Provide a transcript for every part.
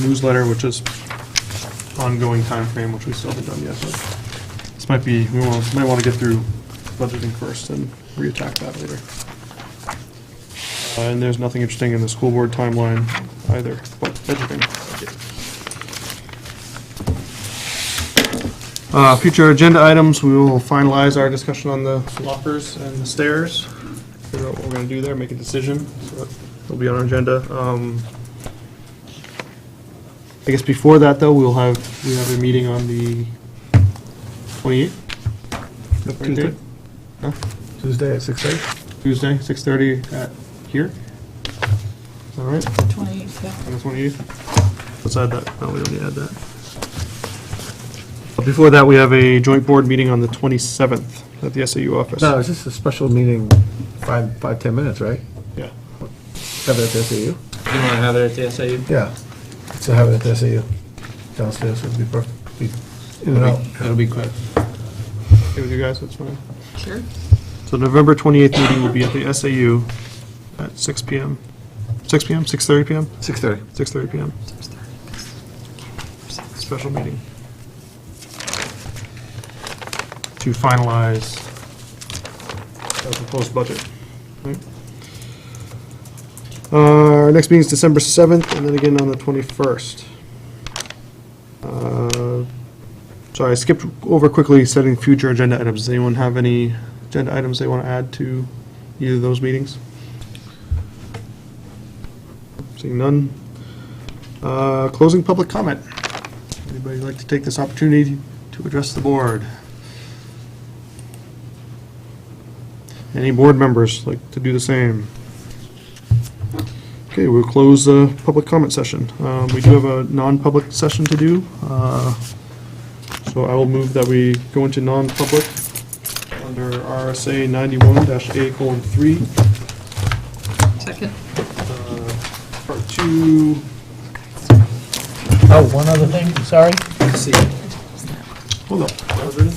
newsletter, which is ongoing time frame, which we still haven't done yet, but this might be, we will- might want to get through budgeting first and reattack that later. Uh, And there's nothing interesting in the school board timeline either, but budgeting. Uh, Future agenda items, we will finalize our discussion on the lockers and the stairs, figure out what we're going to do there, make a decision, so it'll be on our agenda. Um, I guess before that, though, we'll have, we have a meeting on the 28th? Tuesday. No? Tuesday at six eight. Tuesday, 6:30 at here? All right, on 28th, yeah. the 28th? Let's add that, no, we don't need to add that. But Before that, we have a joint board meeting on the 27th at the SAU office. No, it's just a special meeting, five, five, 10 minutes, right? Yeah. Have it at the SAU? You want to have it at the SAU? Yeah. So have it at the SAU. Downstairs would be perfect. Be In and out. That'll be quick. Okay with you guys, that's fine. Sure. So November 28th meeting will be at the SAU at 6 PM. 6 PM, 6:30 PM? Six thirty. 6:30 PM. Special meeting. To finalize our proposed budget. Right. Uh, Our next meeting is December 7th, and then again on the 21st. Uh, Sorry, I skipped over quickly setting future agenda items. Does anyone have any agenda items they want to add to either of those meetings? Seeing none. Uh, Closing public comment. Anybody like to take this opportunity to address the board? Any board members like to do the same? Okay, we'll close the public comment session. Um, We do have a non-public session to do. uh, So I will move that we go into non-public under RSA 91-A colon 3 Second. Part two, Oh, one other thing, sorry. hold on.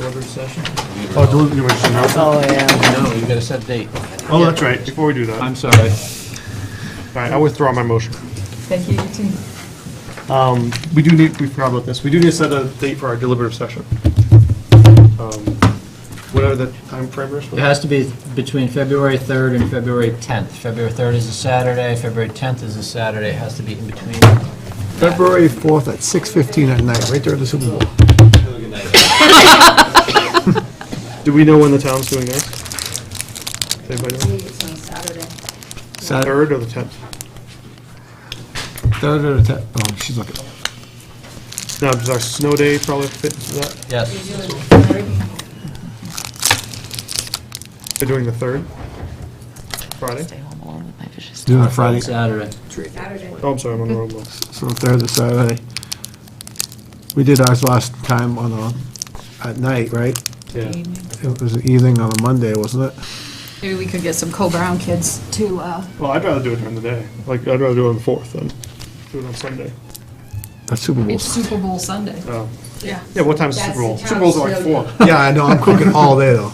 Order session? Oh, deliberation, Oh, yeah. No, you got to set date. Oh, that's right, before we do that, all I'm sorry. right, I withdraw my motion. Thank you, you too. Um, we do need, we forgot about this, we do need to set a date for our deliberative session. Um, Whatever the time frame is. It has to be between February 3rd and February 10th. February 3rd is a Saturday, February 10th is a Saturday, it has to be in between. February fourth at six fifteen at night, right there at the Super Bowl. Do we know when the town's doing theirs? Does Anybody know? it's on Saturday. Saturday, Third or the tenth? third or the tenth. Oh, she's looking. Now, does our snow day probably fit into that? Yes. Usually it's Saturday. They're doing the third? Friday? Doing it Friday. Saturday. Saturday. Oh, I'm sorry, I'm on the wrong one. So third or Saturday. We did ours last time on a, at night, right? Yeah. It was the evening on a Monday, wasn't it? Maybe we could get some Co-Brown kids to, uh, Well, I'd rather do it during the day. Like, I'd rather do it on the 4th than do it on Sunday. That's Super Bowl. it's Super Bowl Sunday. Oh. Yeah. Yeah, what time's the Super That's Bowl? the Super Bowl's are like town's 4. Yeah, I know, I'm cooking all day though.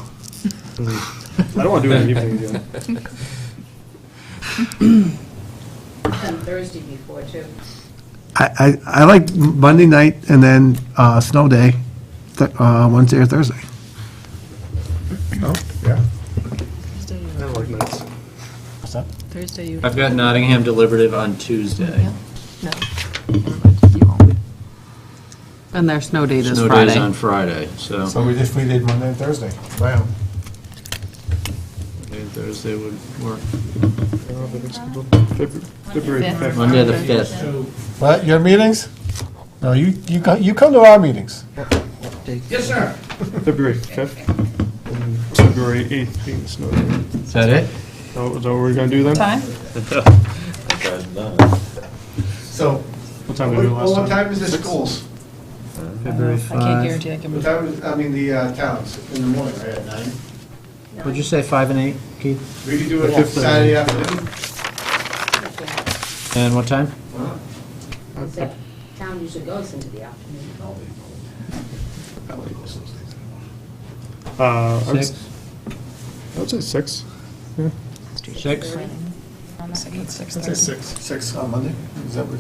I don't want to do it in the evening again. And Thursday before, too. I, I, I like Monday night and then, uh, snow day, th- uh, Wednesday or Thursday. Oh, yeah. I don't like nights. Thursday, you. I've got Nottingham deliberative on Tuesday. No. You won't. And their snow date is Snow Friday. day's on Friday, so we just, we did Monday and Thursday. Wow. maybe Thursday would work. I don't know if it's February- February Fifth. 5th. Monday, the 5th. What, your meetings? No, you, you come, you come to our meetings. February 5th. and February 8th being the snow day. Is that it? So, Is that what we're going to do then? Time? So, What time did what we do last time? what time is the schools? I can't guarantee I What can. time is, I mean, the uh, towns, in the morning, right, at nine? Would you say 5 and 8, Keith? We could do it The fifth Saturday afternoon, And what time? Except Town usually goes into the afternoon. Uh, I would s- 6? I would say 6. 6? Six, six Six on Monday, is that what